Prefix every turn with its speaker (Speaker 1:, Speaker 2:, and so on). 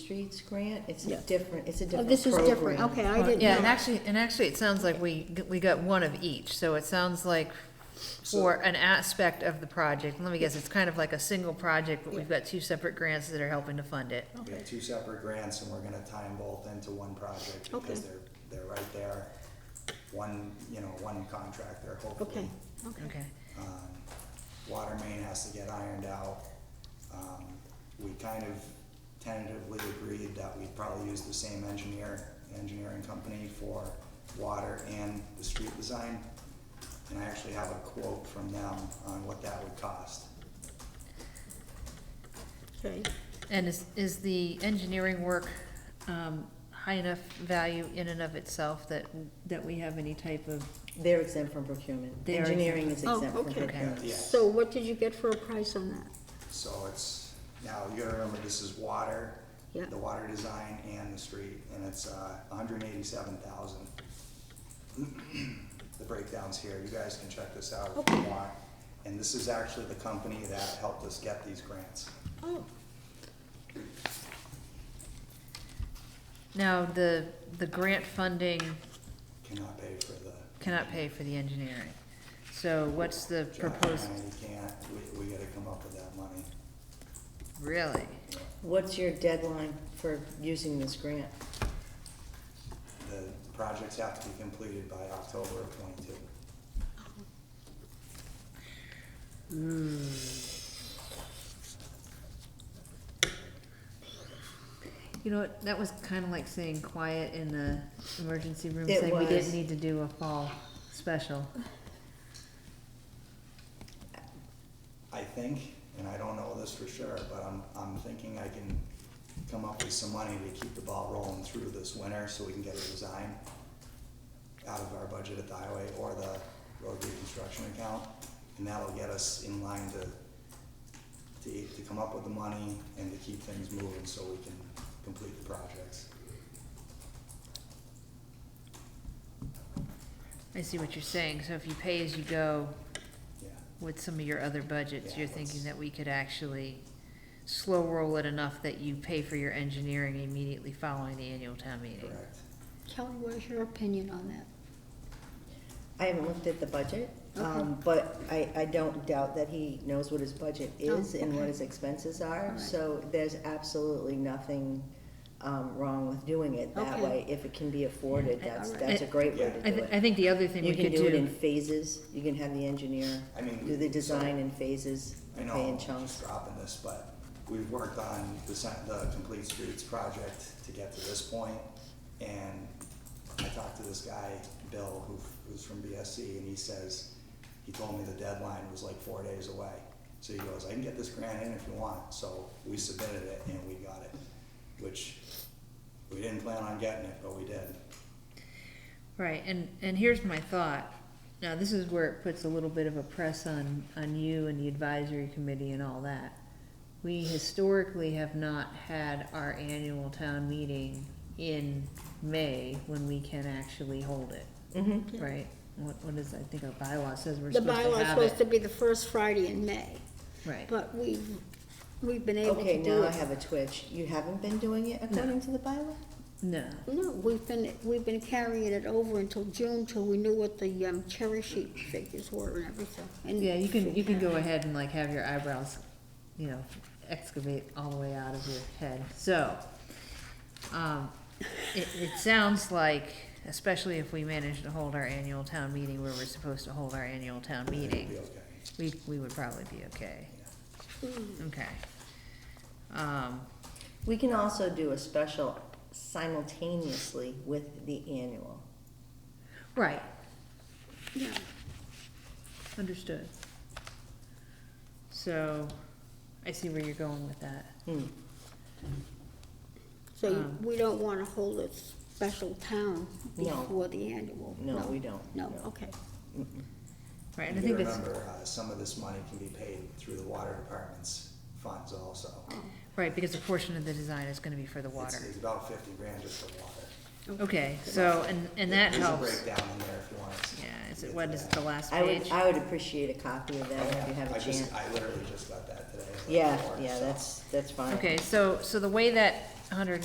Speaker 1: Streets grant, it's a
Speaker 2: Yeah.
Speaker 1: different, it's a
Speaker 3: Oh,
Speaker 1: different program.
Speaker 3: this is different, okay, I didn't know.
Speaker 4: Yeah, and actually, and actually, it sounds like we, g- we got one of each, so it sounds like for an aspect of the project, let me guess, it's kind of like a single project, but we've got two separate grants that are helping to fund it.
Speaker 3: Okay.
Speaker 5: We have two separate grants and we're gonna tie them both into one project because
Speaker 3: Okay.
Speaker 5: they're, they're right there. One, you know, one contractor
Speaker 3: Okay,
Speaker 5: hopefully.
Speaker 3: okay.
Speaker 4: Okay,
Speaker 5: Um, Water main has to get ironed out. Um, We kind of tentatively agreed that we'd probably use the same engineer, engineering company for water and the street design. And I actually have a quote from them on what that would cost.
Speaker 3: Okay,
Speaker 4: and is, is the engineering work, um, high enough value in and of itself that, that we have any type of,
Speaker 1: They're exempt from procurement.
Speaker 4: They are
Speaker 1: Engineering is
Speaker 3: exempt. Oh,
Speaker 1: exempt from
Speaker 3: okay.
Speaker 4: okay,
Speaker 5: Yeah.
Speaker 3: so what did you get for a price on that?
Speaker 5: So it's, now you gotta remember, this is water,
Speaker 3: Yeah.
Speaker 5: the water design and the street, and it's uh hundred and eighty-seven thousand. The breakdown's here, you guys can check this out if you
Speaker 3: Okay.
Speaker 5: want. And this is actually the company that helped us get these grants.
Speaker 3: Oh,
Speaker 4: now, the, the grant funding
Speaker 5: Cannot pay for the.
Speaker 4: cannot pay for the engineering. So what's the
Speaker 5: John and
Speaker 4: proposed,
Speaker 5: I can't, we, we gotta come up with that money.
Speaker 4: really?
Speaker 1: What's your deadline for using this grant?
Speaker 5: The projects have to be completed by October of twenty-two.
Speaker 4: You know, what? that was kind of like saying quiet in the emergency room,
Speaker 1: It
Speaker 4: saying we
Speaker 1: was.
Speaker 4: didn't need to do a fall special.
Speaker 5: I think, and I don't know this for sure, but I'm, I'm thinking I can come up with some money to keep the ball rolling through this winter so we can get a design out of our budget at the highway or the road reconstruction account. And that'll get us in line to, to, to come up with the money and to keep things moving so we can complete the projects.
Speaker 4: I see what you're saying, so if you pay as you go
Speaker 5: Yeah,
Speaker 4: with some of your other budgets,
Speaker 5: Yeah,
Speaker 4: you're
Speaker 5: let's-
Speaker 4: thinking that we could actually slow roll it enough that you pay for your engineering immediately following the annual town meeting.
Speaker 5: correct.
Speaker 3: Kelly, where's your opinion on that?
Speaker 1: I haven't looked at the budget, um,
Speaker 3: Okay.
Speaker 1: but I, I don't doubt that he knows what his budget is
Speaker 3: Oh,
Speaker 1: and what
Speaker 3: okay.
Speaker 1: his expenses are.
Speaker 3: Alright.
Speaker 1: So there's absolutely nothing, um, wrong with doing it that
Speaker 3: Okay.
Speaker 1: way. If it can be afforded, that's,
Speaker 3: alright.
Speaker 1: that's a great way
Speaker 4: I,
Speaker 1: to do
Speaker 4: th-
Speaker 1: it.
Speaker 4: I think the other thing
Speaker 1: You
Speaker 4: we
Speaker 1: can
Speaker 4: could
Speaker 1: do it in
Speaker 4: do,
Speaker 1: phases, you can have the engineer
Speaker 5: I mean,
Speaker 1: do the
Speaker 5: we-
Speaker 1: design in phases,
Speaker 5: I
Speaker 1: and
Speaker 5: know
Speaker 1: pay in
Speaker 5: I'm
Speaker 1: chunks.
Speaker 5: just dropping this, but we've worked on the, sen- the Complete Streets project to get to this point, And I talked to this guy, Bill, who, who's from BSC, and he says, he told me the deadline was like four days away. So he goes, I can get this grant in if you want. So we submitted it and we got it, which we didn't plan on getting it, but we did.
Speaker 4: right, and, and here's my thought. Now, this is where it puts a little bit of a press on, on you and the advisory committee and all that. We historically have not had our annual town meeting in May when we can actually hold it,
Speaker 1: Mm-hmm.
Speaker 4: right? What, what is, I think our bylaw says we're
Speaker 3: The
Speaker 4: supposed to
Speaker 3: bylaw's
Speaker 4: have
Speaker 3: supposed to
Speaker 4: it,
Speaker 3: be the first Friday in May,
Speaker 4: right?
Speaker 3: but we've, we've been able
Speaker 1: Okay,
Speaker 3: to do
Speaker 1: now I
Speaker 3: it.
Speaker 1: have a twitch. You haven't been doing it according to the bylaw?
Speaker 4: No,
Speaker 3: No, we've been, we've been carrying it over until June till we knew what the um, cherry sheet figures were and everything. And-
Speaker 4: yeah, you can, you can go ahead and like have your eyebrows, you know, excavate all the way out of your head, so. Um, it, it sounds like, especially if we manage to hold our annual town meeting where we're supposed to hold our annual town meeting.
Speaker 5: It'll be okay.
Speaker 4: We, we would probably be okay,
Speaker 3: Mm,
Speaker 4: okay. Um,
Speaker 1: We can also do a special simultaneously with the annual.
Speaker 4: right,
Speaker 3: Yeah,
Speaker 4: understood. So, I see where you're going with that.
Speaker 1: Hmm.
Speaker 3: so you-
Speaker 4: Um.
Speaker 3: we don't wanna hold a special town
Speaker 1: No.
Speaker 3: before the annual.
Speaker 1: No, we don't.
Speaker 3: No, okay,
Speaker 4: Right, and I
Speaker 5: You
Speaker 4: think
Speaker 5: gotta
Speaker 4: that's,
Speaker 5: remember, uh, some of this money can be paid through the water department's funds also.
Speaker 4: Oh,
Speaker 3: Oh,
Speaker 4: right, because a portion of the design is gonna be for the
Speaker 5: It's,
Speaker 4: water.
Speaker 5: it's about fifty grand just for water.
Speaker 4: Okay, so, and, and that
Speaker 5: There's a
Speaker 4: helps.
Speaker 5: breakdown in there if you want to see.
Speaker 4: Yeah, is it, what is it, the last
Speaker 1: I would,
Speaker 4: page?
Speaker 1: I would appreciate a copy of that if you have
Speaker 5: I
Speaker 1: a
Speaker 5: just,
Speaker 1: chance.
Speaker 5: I literally just got that today. like,
Speaker 1: Yeah,
Speaker 5: before,
Speaker 1: yeah,
Speaker 5: so.
Speaker 1: that's, that's fine.
Speaker 4: Okay, so, so the way that hundred and